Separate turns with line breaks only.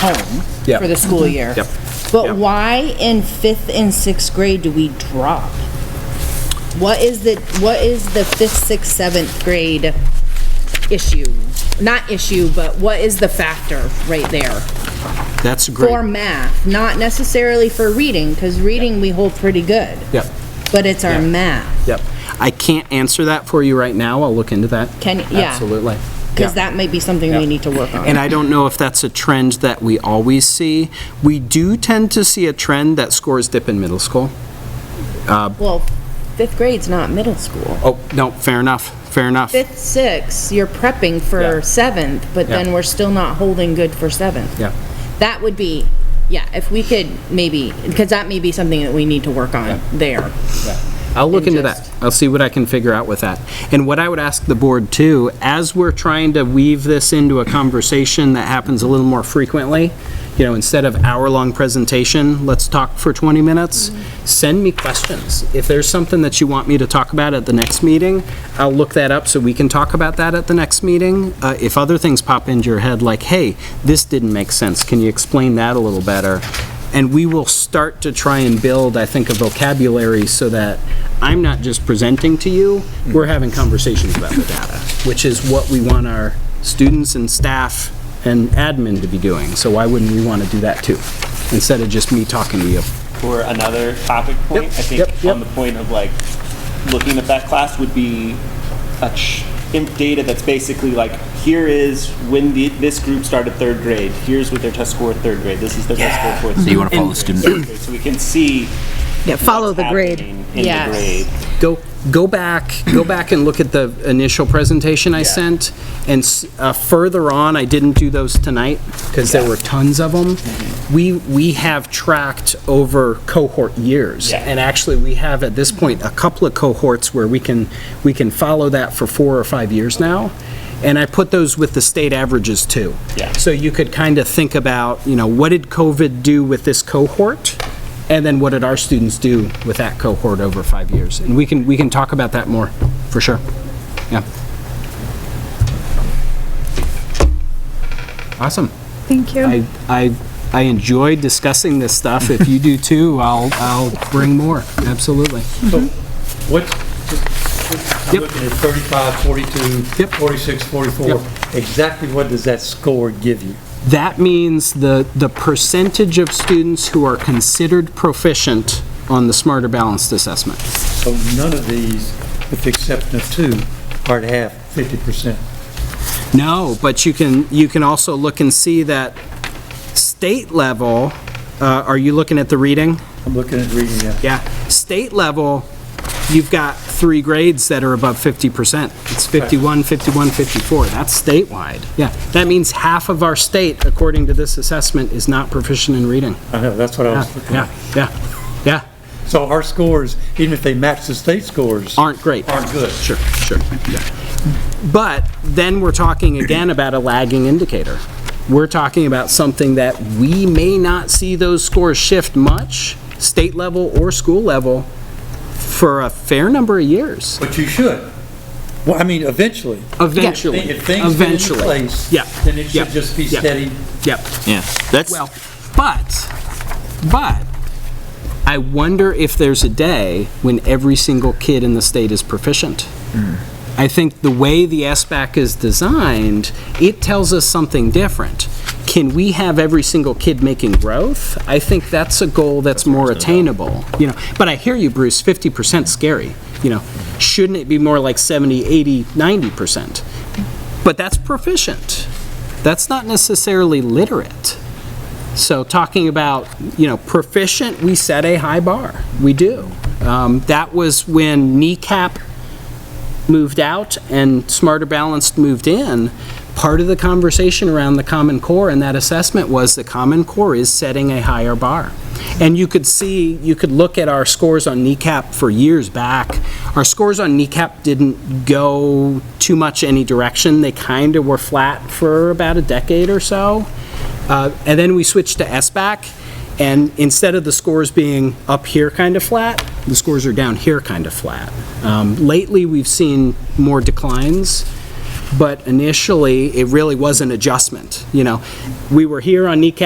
home
Yep.
for the school year.
Mm-hmm. Yep.
But
Yep.
why in fifth and sixth grade do we drop? What is the, what is the fifth, sixth, seventh grade issue? Not issue, but what is the factor right there?
That's
For
great.
math, not necessarily for reading, because reading we hold pretty good.
Yep,
But it's our
Yeah.
math,
yep. I can't answer that for you right now. I'll look into that.
Can- yeah.
Absolutely.
because
Yeah.
that might be something we need to work on.
And I don't know if that's a trend that we always see. We do tend to see a trend that scores dip in middle school.
Well, fifth grade's not middle school.
Oh, no, fair enough, fair enough.
Fifth, sixth, you're prepping
Yeah.
for seventh, but
Yeah.
then we're still not holding good for seventh.
Yeah.
That would be, yeah, if we could maybe, because that may be something that we need to work on there.
I'll look
And
into that.
just-
I'll see what I can figure out with that. And what I would ask the board too, as we're trying to weave this into a conversation that happens a little more frequently, you know, instead of hour-long presentation, let's talk for 20 minutes. Send me questions. If there's something that you want me to talk about at the next meeting, I'll look that up so we can talk about that at the next meeting. Uh, If other things pop into your head, like, hey, this didn't make sense, can you explain that a little better? And we will start to try and build, I think, a vocabulary so that I'm not just presenting to you, we're having conversations about the data, which is what we want our students and staff and admin to be doing. So why wouldn't we want to do that too? Instead of just me talking to you.
for another topic point,
Yep,
I think
yep, yep.
on the point of like looking at that class would be a ch- in- data that's basically like here is when the, this group started third grade. Here's what their test score third grade. This is their test score fourth. So
you wanna follow the student.
so we can see
Yeah, follow
what's
the grade.
happening in
Yes.
the grade.
Go, go back, go back and look at the initial presentation I sent. And s- uh, further on, I didn't do those tonight because there were tons of them. We, we have tracked over cohort years.
Yeah.
And actually, we have at this point a couple of cohorts where we can, we can follow that for four or five years now. And I put those with the state averages too.
Yeah.
So you could kind of think about, you know, what did COVID do with this cohort? And then what did our students do with that cohort over five years? And we can, we can talk about that more, for sure. Yeah. Awesome.
Thank you.
I, I, I enjoy discussing this stuff. If you do too, I'll, I'll bring more, absolutely.
What,
Yep.
I'm looking at 35, 42,
Yep.
46, 44. Exactly what does that score give you?
That means the, the percentage of students who are considered proficient on the Smarter Balanced Assessment.
So none of these, with the exception of two, are to have 50%.
No, but you can, you can also look and see that state level, uh, are you looking at the reading?
I'm looking at reading that.
Yeah. State level, you've got three grades that are above 50%. It's 51, 51, 54. That's statewide. Yeah. That means half of our state, according to this assessment, is not proficient in reading.
I know, that's what I was looking
Yeah,
at.
yeah, yeah.
So our scores, even if they match the state scores.
aren't great.
Aren't good.
Sure, sure, yeah. But then we're talking again about a lagging indicator. We're talking about something that we may not see those scores shift much, state level or school level, for a fair number of years,
But you should. Well, I mean, eventually.
eventually,
If things get into
eventually.
place,
Yeah,
then it
yeah,
should just be
yeah,
steady.
Yep.
Yeah, that's,
Well, but, but, I wonder if there's a day when every single kid in the state is proficient. I think the way the SBAC is designed, it tells us something different. Can we have every single kid making growth? I think that's a goal that's more attainable, you know. But I hear you, Bruce, 50% scary, you know. Shouldn't it be more like 70, 80, 90%? But that's proficient. That's not necessarily literate. So talking about, you know, proficient, we set a high bar. We do. Um, That was when kneecap moved out and Smarter Balanced moved in. Part of the conversation around the Common Core and that assessment was the Common Core is setting a higher bar. And you could see, you could look at our scores on kneecap for years back. Our scores on kneecap didn't go too much any direction. They kind of were flat for about a decade or so. Uh, And then we switched to SBAC, and instead of the scores being up here kind of flat, the scores are down here kind of flat. Um, Lately, we've seen more declines, but initially, it really was an adjustment, you know? We were here on kneecap